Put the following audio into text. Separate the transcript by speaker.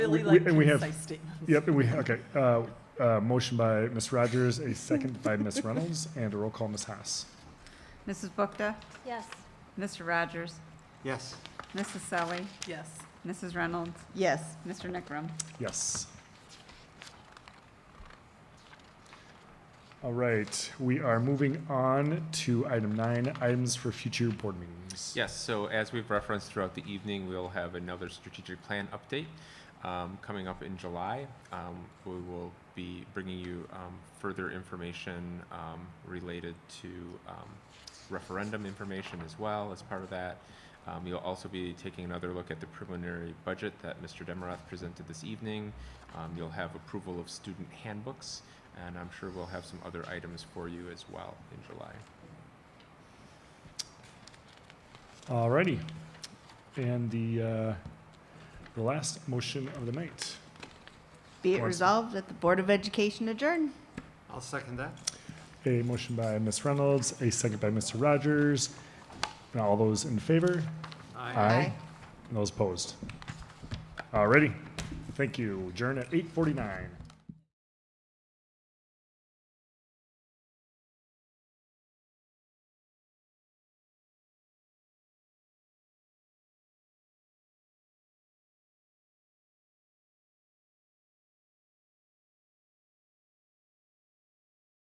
Speaker 1: Really
Speaker 2: We-
Speaker 1: like
Speaker 2: we- and we have-
Speaker 1: concise statements.
Speaker 2: Yep, and we, okay, uh, uh, motion by Ms. Rogers, a second by Ms. Reynolds, and a roll call, Ms. Haas.
Speaker 3: Mrs. Bookta,
Speaker 4: Yes.
Speaker 3: Mr. Rogers,
Speaker 5: Yes.
Speaker 3: Mrs. Selly,
Speaker 1: Yes.
Speaker 3: Mrs. Reynolds,
Speaker 4: Yes.
Speaker 3: Mr. Nickram.
Speaker 2: Yes. All right, we are moving on to item nine, items for future board meetings.
Speaker 6: Yes, so as we've referenced throughout the evening, we'll have another strategic plan update um, coming up in July. Um, We will be bringing you um, further information um, related to um, referendum information as well as part of that. Um, You'll also be taking another look at the preliminary budget that Mr. Demarath presented this evening. Um, You'll have approval of student handbooks, and I'm sure we'll have some other items for you as well in July.
Speaker 2: All righty. And the, uh, the last motion of the night.
Speaker 4: Be it
Speaker 2: Once-
Speaker 4: resolved that the Board of Education adjourn.
Speaker 5: I'll second that.
Speaker 2: A motion by Ms. Reynolds, a second by Mr. Rogers. And all those in favor?
Speaker 4: Aye.
Speaker 2: And those opposed? All righty. Thank you. Adjourn at eight forty-nine.